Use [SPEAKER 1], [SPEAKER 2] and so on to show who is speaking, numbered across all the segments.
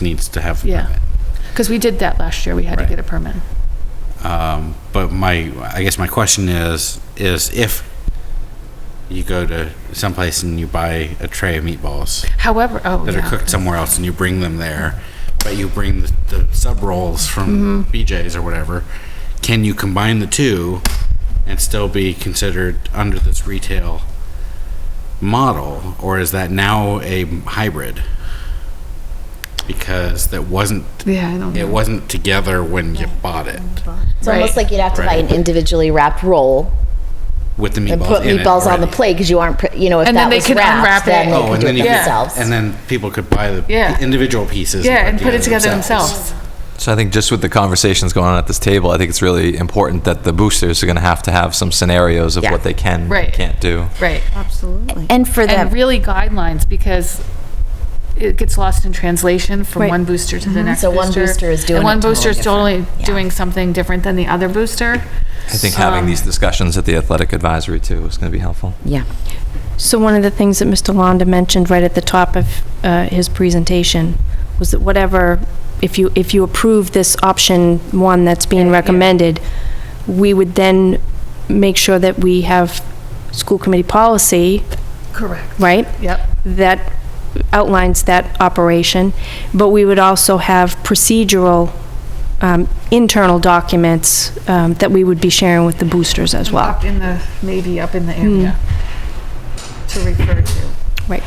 [SPEAKER 1] needs to have a
[SPEAKER 2] Yeah.
[SPEAKER 1] permit.
[SPEAKER 2] Because we did that last year, we had to
[SPEAKER 1] Right.
[SPEAKER 2] get a permit.
[SPEAKER 1] Um, But my, I guess my question is, is if you go to someplace and you buy a tray of meatballs
[SPEAKER 2] However, oh,
[SPEAKER 1] that are
[SPEAKER 2] yeah.
[SPEAKER 1] cooked somewhere else and you bring them there, but you bring the, the sub rolls
[SPEAKER 2] Mm-hmm.
[SPEAKER 1] from BJ's or whatever, can you combine the two and still be considered under this retail model, or is that now a hybrid? Because that wasn't,
[SPEAKER 2] Yeah, I don't
[SPEAKER 1] it
[SPEAKER 2] know.
[SPEAKER 1] wasn't together when you bought it
[SPEAKER 3] It's
[SPEAKER 2] Right.
[SPEAKER 3] almost like you'd have to buy an
[SPEAKER 1] Right.
[SPEAKER 3] individually wrapped roll
[SPEAKER 1] with the meatballs
[SPEAKER 3] and put
[SPEAKER 1] in it
[SPEAKER 3] meatballs on the
[SPEAKER 1] already.
[SPEAKER 3] plate because you aren't, pr- you know, if
[SPEAKER 2] And then
[SPEAKER 3] that
[SPEAKER 2] they
[SPEAKER 3] was
[SPEAKER 2] could unwrap
[SPEAKER 3] wrapped, then
[SPEAKER 2] it.
[SPEAKER 3] they
[SPEAKER 1] Oh,
[SPEAKER 3] could
[SPEAKER 1] and
[SPEAKER 3] do
[SPEAKER 1] then
[SPEAKER 3] it
[SPEAKER 1] you
[SPEAKER 3] for
[SPEAKER 1] could-
[SPEAKER 3] themselves.
[SPEAKER 1] and then people could buy the
[SPEAKER 2] Yeah.
[SPEAKER 1] individual pieces.
[SPEAKER 2] Yeah, and put it together themselves.
[SPEAKER 4] So I think just with the conversations going on at this table, I think it's really important that the boosters are going to have to have some scenarios of
[SPEAKER 3] Yeah.
[SPEAKER 4] what they can
[SPEAKER 2] Right.
[SPEAKER 4] and can't do.
[SPEAKER 2] Right.
[SPEAKER 3] And for
[SPEAKER 2] And
[SPEAKER 3] them,
[SPEAKER 2] really guidelines, because it gets lost in translation from one booster to the next
[SPEAKER 3] So
[SPEAKER 2] booster.
[SPEAKER 3] one booster is doing
[SPEAKER 2] And
[SPEAKER 3] it
[SPEAKER 2] one
[SPEAKER 3] totally
[SPEAKER 2] booster is totally
[SPEAKER 3] different. Yeah.
[SPEAKER 2] doing something different than the other booster.
[SPEAKER 4] I think
[SPEAKER 2] Um,
[SPEAKER 4] having these discussions at the athletic advisory too is going to be helpful.
[SPEAKER 3] yeah.
[SPEAKER 5] So one of the things that Mr. Londa mentioned right at the top of uh, his presentation was that whatever, if you, if you approve this option one that's being recommended, we would then make sure that we have school committee policy,
[SPEAKER 2] Correct.
[SPEAKER 5] right?
[SPEAKER 2] Yep.
[SPEAKER 5] That outlines that operation, but we would also have procedural, um, internal documents um, that we would be sharing with the boosters as well.
[SPEAKER 2] Up in the, maybe up in the area to refer to.
[SPEAKER 5] Right.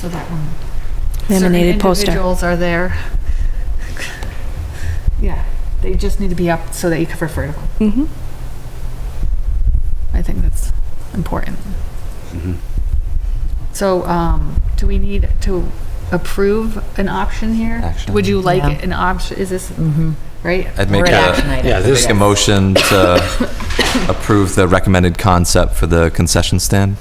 [SPEAKER 2] So that one.
[SPEAKER 5] Laminated
[SPEAKER 2] Certain
[SPEAKER 5] poster.
[SPEAKER 2] Individuals are there. Yeah, they just need to be up so that you can refer to them.
[SPEAKER 5] Mhm.
[SPEAKER 2] I think that's important.
[SPEAKER 4] Mm-hmm.
[SPEAKER 2] So, um, do we need to approve an option here?
[SPEAKER 4] Action. Uh,
[SPEAKER 2] Would you like
[SPEAKER 3] Yeah.
[SPEAKER 2] an option, is this,
[SPEAKER 5] Mm-hmm.
[SPEAKER 2] right?
[SPEAKER 4] I'd make
[SPEAKER 3] Or an action
[SPEAKER 4] a,
[SPEAKER 3] item.
[SPEAKER 1] Yeah, this
[SPEAKER 4] make a motion to approve the recommended concept for the concession stand.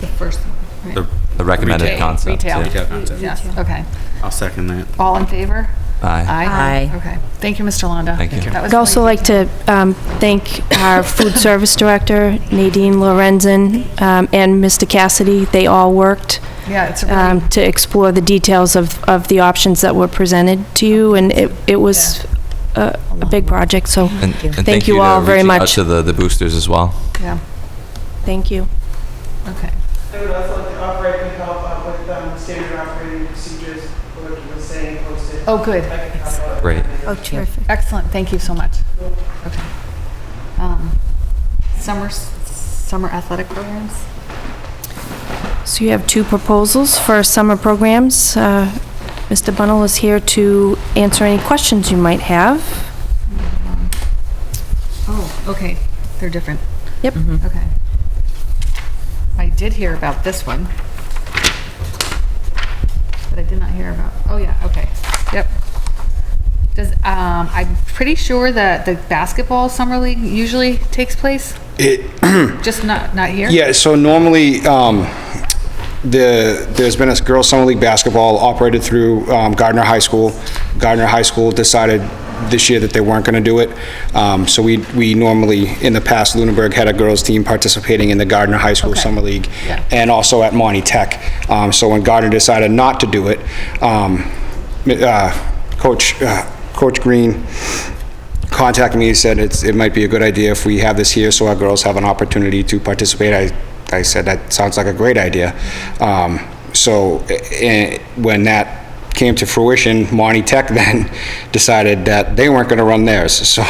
[SPEAKER 2] The first one, right?
[SPEAKER 1] The
[SPEAKER 4] The recommended
[SPEAKER 1] Retail.
[SPEAKER 4] concept.
[SPEAKER 2] Retail.
[SPEAKER 4] yeah.
[SPEAKER 1] retail concept.
[SPEAKER 2] Yes, okay.
[SPEAKER 1] I'll second that.
[SPEAKER 2] All in favor?
[SPEAKER 4] Aye.
[SPEAKER 3] Aye.
[SPEAKER 2] Okay. Thank you, Mr. Londa.
[SPEAKER 4] Thank you.
[SPEAKER 2] That was
[SPEAKER 5] I'd also
[SPEAKER 2] really
[SPEAKER 5] like to um, thank our food service director, Nadine Lorenzen, um, and Mr. Cassidy. They all worked
[SPEAKER 2] good. Yeah, it's a really,
[SPEAKER 5] um, to explore the details of, of the options that were presented to you, and it, it was a a big project, so
[SPEAKER 4] And, and
[SPEAKER 5] Thank you
[SPEAKER 4] to
[SPEAKER 5] all very
[SPEAKER 4] reaching out
[SPEAKER 5] much.
[SPEAKER 4] to the, the boosters as well.
[SPEAKER 2] yeah,
[SPEAKER 5] thank you.
[SPEAKER 2] okay.
[SPEAKER 6] I would also like to operate and help out with um, standard operating procedures, what you were saying, posted.
[SPEAKER 2] Oh, good.
[SPEAKER 6] I can help out.
[SPEAKER 4] Great.
[SPEAKER 3] Oh, terrific.
[SPEAKER 2] Excellent, thank you so much. Okay. Um, Summer, s- summer athletic programs?
[SPEAKER 5] So you have two proposals for summer programs. Uh, Mr. Bunnell is here to answer any questions you might have.
[SPEAKER 2] Oh, okay, they're different.
[SPEAKER 5] Yep.
[SPEAKER 2] Okay. I did hear about this one. But I did not hear about, oh yeah, okay, yep. Does, um, I'm pretty sure that the basketball summer league usually takes place,
[SPEAKER 7] It,
[SPEAKER 2] just not, not here?
[SPEAKER 7] yeah, so normally, um, the, there's been a girls' summer league basketball operated through, um, Gardner High School. Gardner High School decided this year that they weren't gonna do it. Um, so we, we normally, in the past, Lunenburg had a girls' team participating in the Gardner High School
[SPEAKER 2] Okay.
[SPEAKER 7] Summer League.
[SPEAKER 2] Yeah.
[SPEAKER 7] And also at Monty Tech. Um, so when Gardner decided not to do it, um, uh, Coach, uh, Coach Green contacted me, he said it's, it might be a good idea if we have this here so our girls have an opportunity to participate. I, I said, that sounds like a great idea. Um, so, eh, when that came to fruition, Monty Tech then decided that they weren't gonna run theirs, so,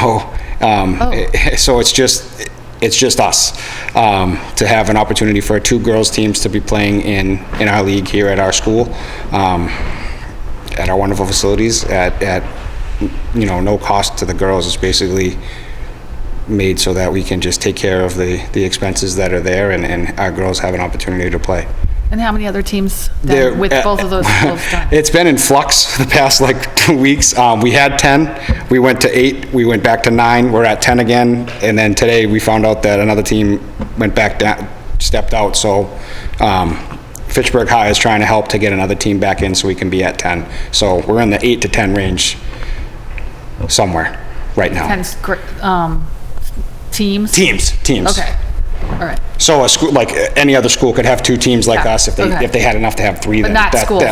[SPEAKER 7] um, eh, so it's just, it's just us, um, to have an opportunity for two girls' teams to be playing in, in our league here at our school. Um, at our wonderful facilities at, at, you know, no cost to the girls. It's basically made so that we can just take care of the, the expenses that are there and, and our girls have an opportunity to play.
[SPEAKER 2] And how many other teams then
[SPEAKER 7] There- uh,
[SPEAKER 2] with both of those schools done?
[SPEAKER 7] It's been in flux the past like two weeks. Um, we had 10, we went to eight, we went back to nine, we're at 10 again. And then today we found out that another team went back down, stepped out. So, um, Fitchburg High is trying to help to get another team back in so we can be at 10. So we're in the eight to 10 range somewhere right now.
[SPEAKER 2] 10 gr- um, teams?
[SPEAKER 7] Teams, teams.
[SPEAKER 2] Okay, all right.
[SPEAKER 7] So a school, like uh, any other school could have two teams like
[SPEAKER 2] Yeah,
[SPEAKER 7] us if they,
[SPEAKER 2] okay.
[SPEAKER 7] if they had enough to have three.
[SPEAKER 2] But
[SPEAKER 7] then
[SPEAKER 2] not
[SPEAKER 7] that-
[SPEAKER 2] schools.
[SPEAKER 7] that-